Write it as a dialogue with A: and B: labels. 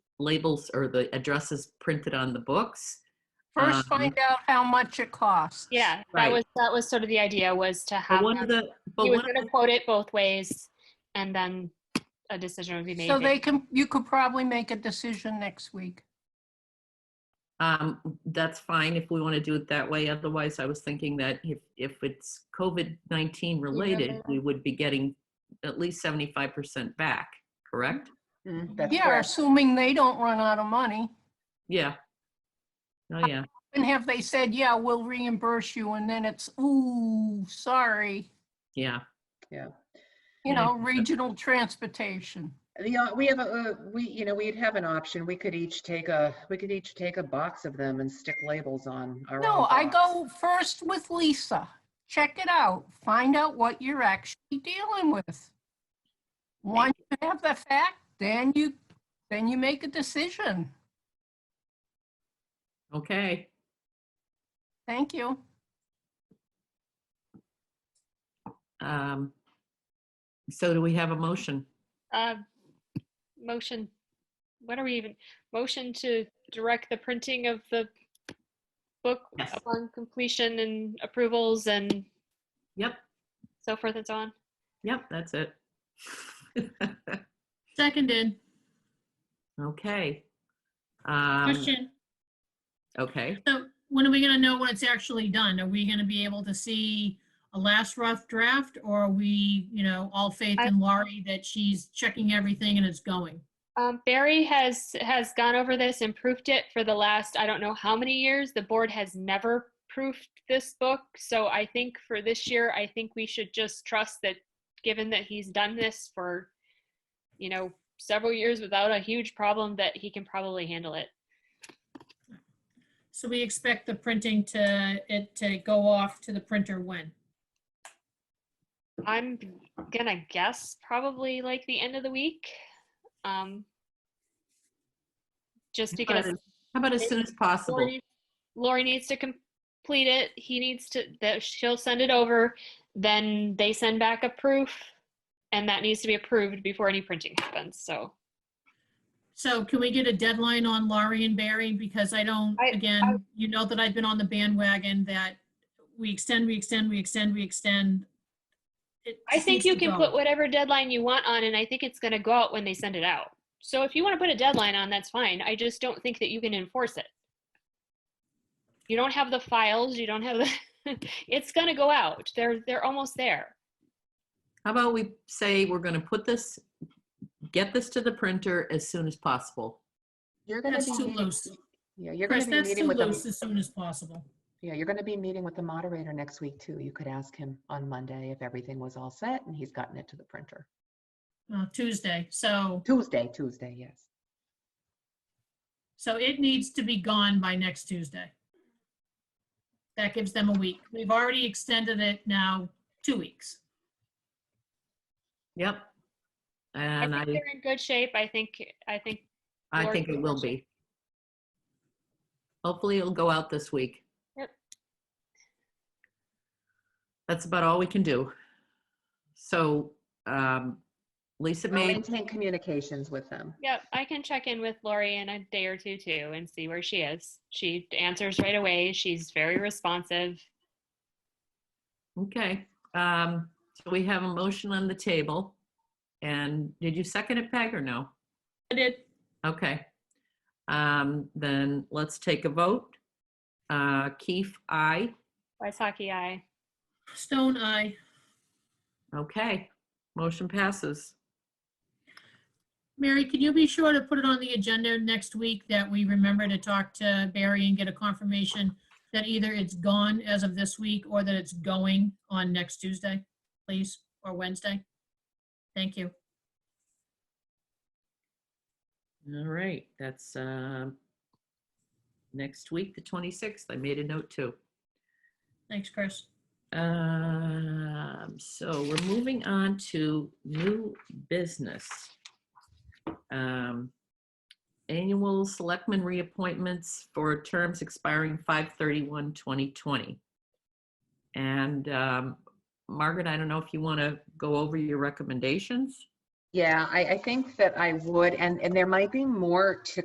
A: labels or the addresses printed on the books.
B: First,
A: Um,
B: find out how much it costs.
C: Yeah,
A: Right.
C: that was, that was sort of the idea was to
A: But
C: have,
A: one of
C: them-
A: the, but
C: he was
A: one of
C: gonna
A: the,
C: quote it both ways and then a decision would be made.
B: So they can, you could probably make a decision next week.
A: um, that's fine if we want to do it that way. Otherwise, I was thinking that if, if it's COVID-19 related,
C: but-
A: we would be getting at least 75% back, correct?
C: Mm-hmm.
D: Mm-hmm.
E: That's
B: Yeah,
E: correct.
B: assuming they don't run out of money.
A: Yeah. Oh, yeah.
B: And have they said, yeah, we'll reimburse you, and then it's, ooh, sorry,
A: Yeah.
B: you
A: Yeah.
B: know, regional transportation.
E: The, uh, we have a, uh, we, you know, we'd have an option. We could each take a, we could each take a box of them and stick labels on our.
B: No,
E: own
B: I
E: box.
B: go first with Lisa. Check it out. Find out what you're actually dealing with. Once you have the fact, then you, then you make a decision.
A: Okay.
B: Thank you.
A: Um, so do we have a motion?
C: Uh, Motion, what are we even, motion to direct the printing of the book
A: Yes.
C: upon completion and approvals and
A: Yep.
C: so forth and so on.
A: Yep. That's it.
D: Seconded.
A: okay. Um,
D: Question.
A: okay.
D: So when are we gonna know when it's actually done? Are we gonna be able to see a last rough draft or are we, you know, all faith
C: I-
D: in Laurie that she's checking everything and it's going?
C: Um, Barry has, has gone over this and proofed it for the last, I don't know how many years. The board has never proofed this book. So I think for this year, I think we should just trust that, given that he's done this for, you know, several years without a huge problem, that he can probably handle it.
D: So we expect the printing to, it to go off to the printer when?
C: I'm gonna guess probably like the end of the week. Um, just
A: How about
C: because
A: as- how about as soon as possible?
C: Lori, Lori needs to complete it. He needs to, that she'll send it over. Then they send back a proof and that needs to be approved before any printing happens. So
D: So can we get a deadline on Laurie and Barry? Because I don't,
C: I- I-
D: again, you know that I've been on the bandwagon that we extend, we extend, we extend, we extend. It
C: I
D: just
C: think
D: needs
C: you
D: to
C: can
D: go.
C: put whatever deadline you want on and I think it's gonna go out when they send it out. So if you want to put a deadline on, that's fine. I just don't think that you can enforce it. You don't have the files, you don't have the, it's gonna go out. They're, they're almost there.
A: How about we say we're going to put this, get this to the printer as soon as possible?
E: You're gonna
D: That's
E: be
D: too
E: meeting-
D: loose.
E: Yeah, you're
D: Chris,
E: gonna be
D: that's
E: meeting
D: too
E: with
D: loose
E: the,
D: as soon as possible.
E: yeah, you're gonna be meeting with the moderator next week too. You could ask him on Monday if everything was all set and he's gotten it to the printer.
D: Uh, Tuesday, so,
E: Tuesday, Tuesday, yes.
D: so it needs to be gone by next Tuesday. That gives them a week. We've already extended it now two weeks.
A: Yep.
C: I
A: And
C: think
A: I,
C: they're in good shape. I think, I think
A: I
C: Lori
A: think it will be. Hopefully it'll go out this week.
C: Yep.
A: That's about all we can do. So, um, Lisa
E: I'll
A: made,
E: Maintain communications with them.
C: Yep, I can check in with Lori in a day or two too and see where she is. She answers right away. She's very responsive.
A: okay. Um, so we have a motion on the table. And did you second it, Peg, or no?
D: I did,
A: Okay. Um, then let's take a vote. Uh, Keith, aye.
C: Waisaki I.
D: Stone Eye.
A: Okay. Motion passes.
D: Mary, can you be sure to put it on the agenda next week that we remember to talk to Barry and get a confirmation that either it's gone as of this week or that it's going on next Tuesday, please, or Wednesday? Thank you.
A: All right, that's, um, next week, the 26th. I made a note too.
D: Thanks, Chris.
A: Um, so we're moving on to new business. Um, Annual selectmen reappointments for terms expiring 5/31/2020. And um, Margaret, I don't know if you want to go over your recommendations?
E: Yeah, I, I think that I would, and, and there might be more to